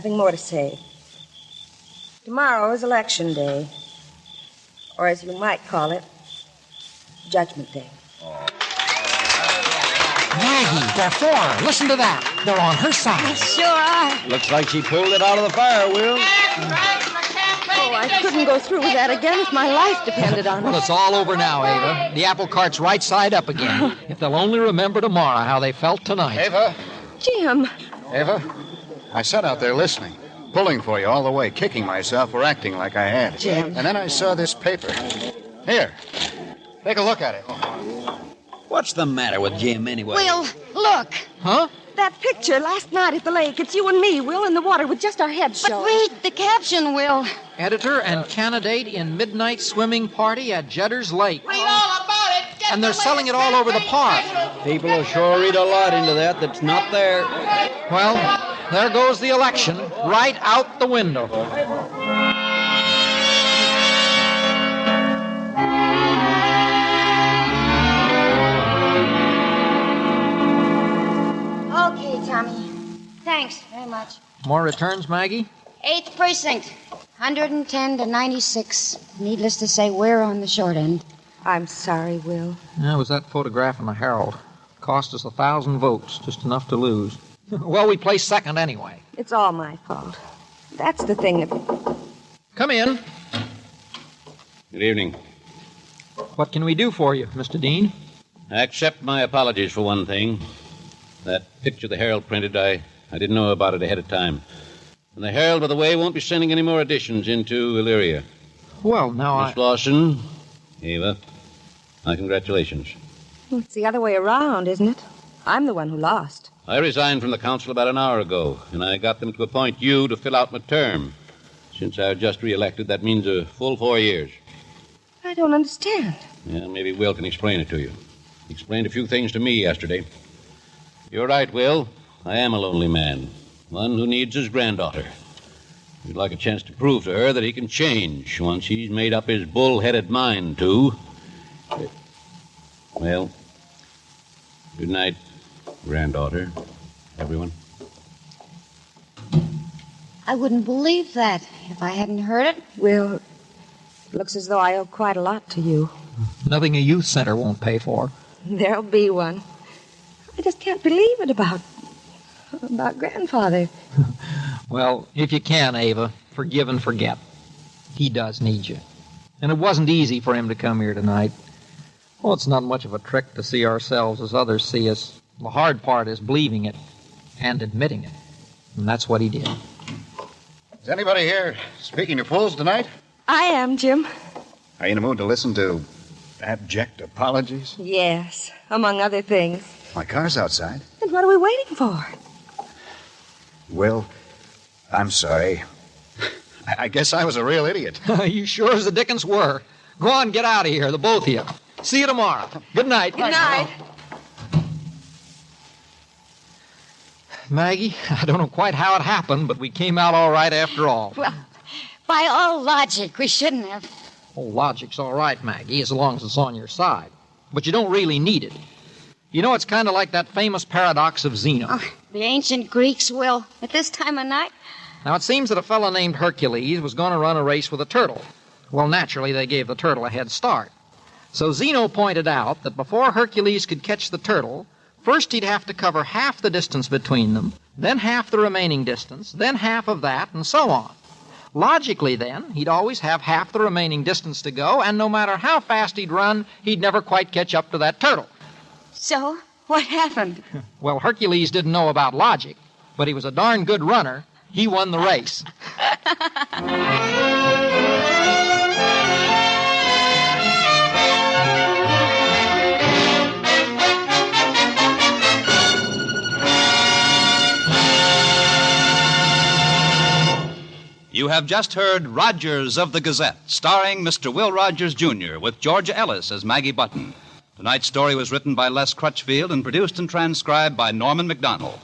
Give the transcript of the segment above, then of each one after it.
Nothing more to say. Tomorrow is election day, or as you might call it, judgment day. Maggie, they're four. Listen to that. They're on her side. Sure are. Looks like she pulled it out of the fire, Will. Oh, I couldn't go through with that again if my life depended on Well, it. it's all over now, Ava. The apple cart's right side up again. if they'll only remember tomorrow how they felt tonight. Ava, Jim, Ava, I sat out there listening, pulling for you all the way, kicking myself for acting like I had. Jim. And then I saw this paper. Here, take a look at it. What's the matter with Jim anyway? Will, look. Huh? that picture last night at the lake, it's you and me, Will, in the water with just our heads But showing. read the caption, Will. Editor and candidate in midnight swimming party at Jedder's Lake. Read all about it. Get And they're the latest selling it all over the park. People will sure read a lot into that that's not there. Well, there goes the election right out the window. Okay, Tommy. Thanks very much. More returns, Maggie? Eighth precinct, 110 to 96. Needless to say, we're on the short end. I'm sorry, Will. That was that photograph in the Herald. Cost us a thousand votes, just enough to lose. well, we placed second anyway. It's all my fault. That's the thing that. Come in. Good evening. What can we do for you, Mr. Dean? I accept my apologies for one thing. That picture the Herald printed, I, I didn't know about it ahead of time. And the Herald, by the way, won't be sending any more editions into Illyria. Well, now I. Miss Lawson, Ava, my congratulations. It's the other way around, isn't it? I'm the one who lost. I resigned from the council about an hour ago, and I got them to appoint you to fill out my term. Since I was just re-elected, that means a full four years. I don't understand. Yeah, maybe Will can explain it to you. He explained a few things to me yesterday. You're right, Will. I am a lonely man, one who needs his granddaughter. He'd like a chance to prove to her that he can change once he's made up his bull-headed mind to. Well, good night, granddaughter, everyone. I wouldn't believe that if I hadn't heard it. Will, it looks as though I owe quite a lot to you. Nothing a youth center won't pay for. There'll be one. I just can't believe it about about grandfather. Well, if you can, Ava, forgive and forget. He does need you. And it wasn't easy for him to come here tonight. Well, it's not much of a trick to see ourselves as others see us. The hard part is believing it and admitting it. And that's what he did. Is anybody here speaking to fools tonight? I am, Jim. Are you in the mood to listen to abject apologies? Yes, among other things. My car's outside. Then what are we waiting for? Will, I'm sorry. I I guess I was a real idiot. you sure as the dickens were. Go on, get out of here, the both of you. See you tomorrow. Good night. Good night. Maggie, I don't know quite how it happened, but we came out all right after all. Well, by all logic, we shouldn't have. Oh, logic's all right, Maggie, as long as it's on your side. But you don't really need it. You know, it's kind of like that famous paradox of Zeno. The ancient Greeks will. At this time of night, Now, it seems that a fellow named Hercules was going to run a race with a turtle. Well, naturally, they gave the turtle a head start. So Zeno pointed out that before Hercules could catch the turtle, first he'd have to cover half the distance between them, then half the remaining distance, then half of that, and so on. Logically, then, he'd always have half the remaining distance to go, and no matter how fast he'd run, he'd never quite catch up to that turtle. so what happened? Well, Hercules didn't know about logic, but he was a darn good runner. He won the race. You have just heard Rogers of the Gazette, starring Mr. Will Rogers, Jr., with Georgia Ellis as Maggie Button. Tonight's story was written by Les Crutchfield and produced and transcribed by Norman McDonald.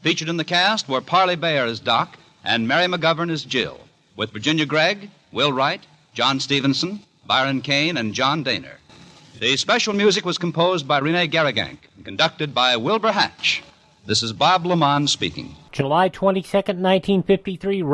Featured in the cast were Parley Bayer as Doc and Mary McGovern as Jill, with Virginia Gregg, Will Wright, John Stevenson, Byron Kane, and John Daner. The special music was composed by Rene Garrigank and conducted by Wilbur Hatch. This is Bob Lamont speaking. July 22nd, 1953.